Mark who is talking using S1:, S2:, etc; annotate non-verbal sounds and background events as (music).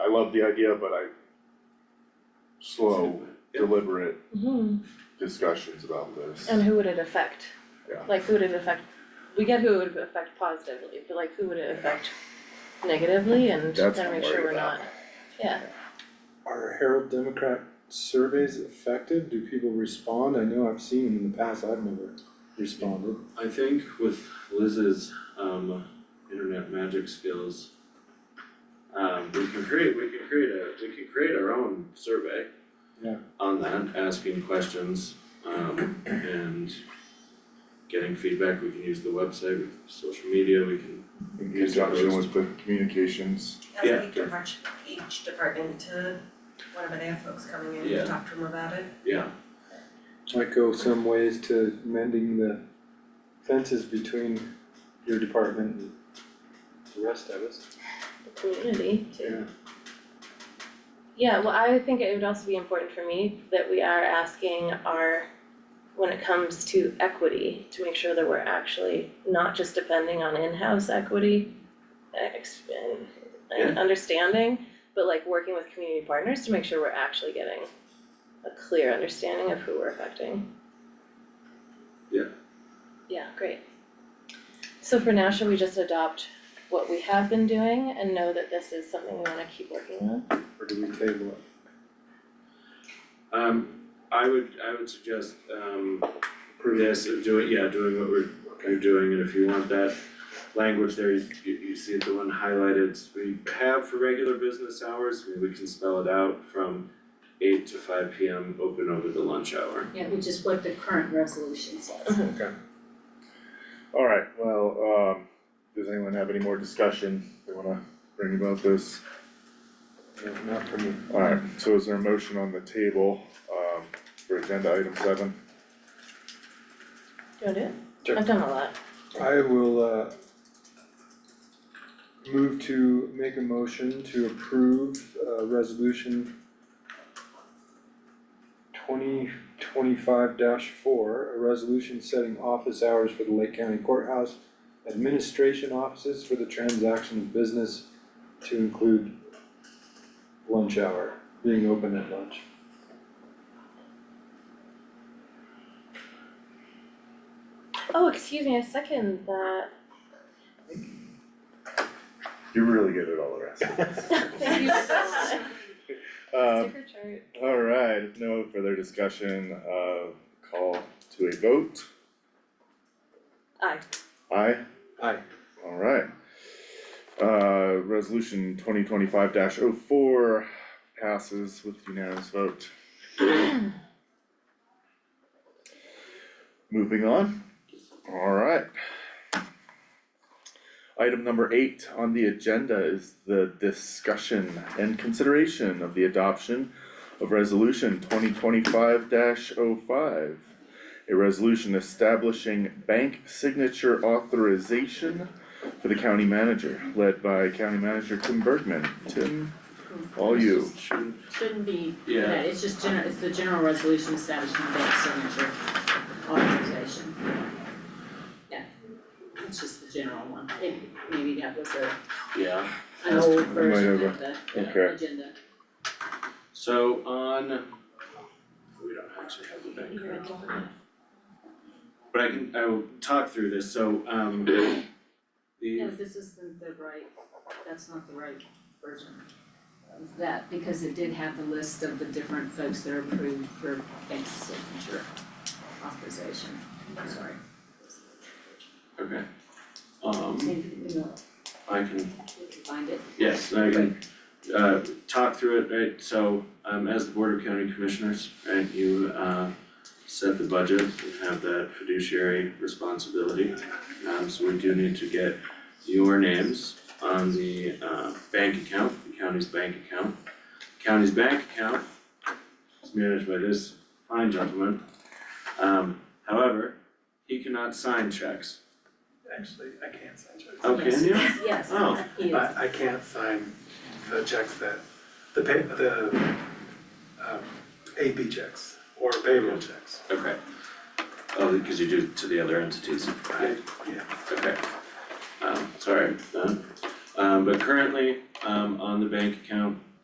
S1: love the idea, but I slow, deliberate
S2: Mhm.
S1: discussions about this.
S2: And who would it affect?
S1: Yeah.
S2: Like, who would it affect? We get who it would affect positively, but like, who would it affect negatively and
S1: That's what
S2: and
S1: I'm
S2: make sure
S1: worried
S2: we're
S1: about.
S2: not, yeah.
S3: Are Herald Democrat surveys effective? Do people respond? I know I've seen them in the past, I've never responded.
S4: I think with Liz's um internet magic skills. Um we can create, we can create a, we can create our own survey.
S3: Yeah.
S4: On that, asking questions um and getting feedback, we can use the website, we can use social media, we can,
S1: In conjunction with the communications,
S5: I would
S4: Yeah.
S5: think direct each department to whenever they have folks coming in
S4: Yeah.
S5: to talk to them about it.
S4: yeah,
S3: Might go some ways to mending the fences between your department and the rest of us.
S2: the community too. Yeah, well, I think it would also be important for me that we are asking our, when it comes to equity, to make sure that we're actually not just depending on in-house equity uh, ex- and and understanding, but like working with community partners to make sure we're actually getting a clear understanding of who we're affecting.
S4: Yeah.
S2: Yeah, great. So for now, should we just adopt what we have been doing and know that this is something we wanna keep working on.
S3: Or do we table it?
S4: um I would, I would suggest um yes, doing, yeah, doing what we're you're doing, and if you want that language there, you you you see the one highlighted, we have for regular business hours, we we can spell it out from eight to five P M, open over the lunch hour.
S6: Yeah, which is what the current resolution says.
S1: alright, well, um, does anyone have any more discussion they wanna bring about this?
S3: No, Not for me.
S1: Alright, so is there a motion on the table, um, for agenda item seven?
S2: Do you wanna do it?
S3: Sure.
S2: I've done a lot.
S3: I will uh move to make a motion to approve uh resolution twenty twenty-five four, a resolution setting office hours for the Lake County Courthouse administration offices for the transaction of business to include lunch hour, being open at lunch.
S2: Oh, excuse me, I second that.
S1: You're really good at all the rest.
S2: Thank you (laughs) so much.
S1: Um,
S2: Sticker chart.
S1: Alright, if no further discussion, uh, call to a vote,
S2: Aye.
S1: aye?
S3: Aye.
S1: Alright. Uh, resolution twenty twenty-five oh 4 passes with unanimous vote. Moving on, alright. Item number eight on the agenda is the discussion and consideration of the adoption of resolution twenty twenty-five 5 A resolution establishing bank signature authorization for the county manager, led by County Manager Tim Bergman. Tim, all you.
S4: Should-
S6: Shouldn't be,
S4: Yeah.
S6: yeah, it's just general, it's the general resolution establishing bank signature authorization. Yeah, it's just the general one, It- maybe that was a,
S4: Yeah,
S6: an old
S1: might
S6: version
S1: have
S6: of the the
S1: okay.
S6: agenda.
S4: so on, we don't actually have the bank
S2: You're a
S4: card.
S2: donor.
S4: But I can, I will talk through this, so um
S6: No,
S4: the,
S6: this isn't the right, that's not the right version of that, because it did have the list of the different folks that are approved for bank signature authorization, I'm sorry.
S4: okay. Um
S6: Maybe, you know,
S4: I can
S6: we can find it.
S4: Yes, I can uh talk through it, right, so um as the Board of County Commissioners, right, you uh set the budget and have that fiduciary responsibility. Um so we do need to get your names on the uh bank account, the county's bank account. County's bank account is managed by this fine gentleman. Um however, he cannot sign checks.
S7: Actually, I can't sign checks.
S4: Oh, can you?
S6: Yes,
S4: Oh.
S6: he is.
S7: I I can't sign the checks that, the pay, the um AP checks or payroll checks.
S4: Okay. Oh, because you do to the other entities.
S7: I, yeah,
S4: Okay. uh, Um, sorry, um, um, but currently, um, on the bank account,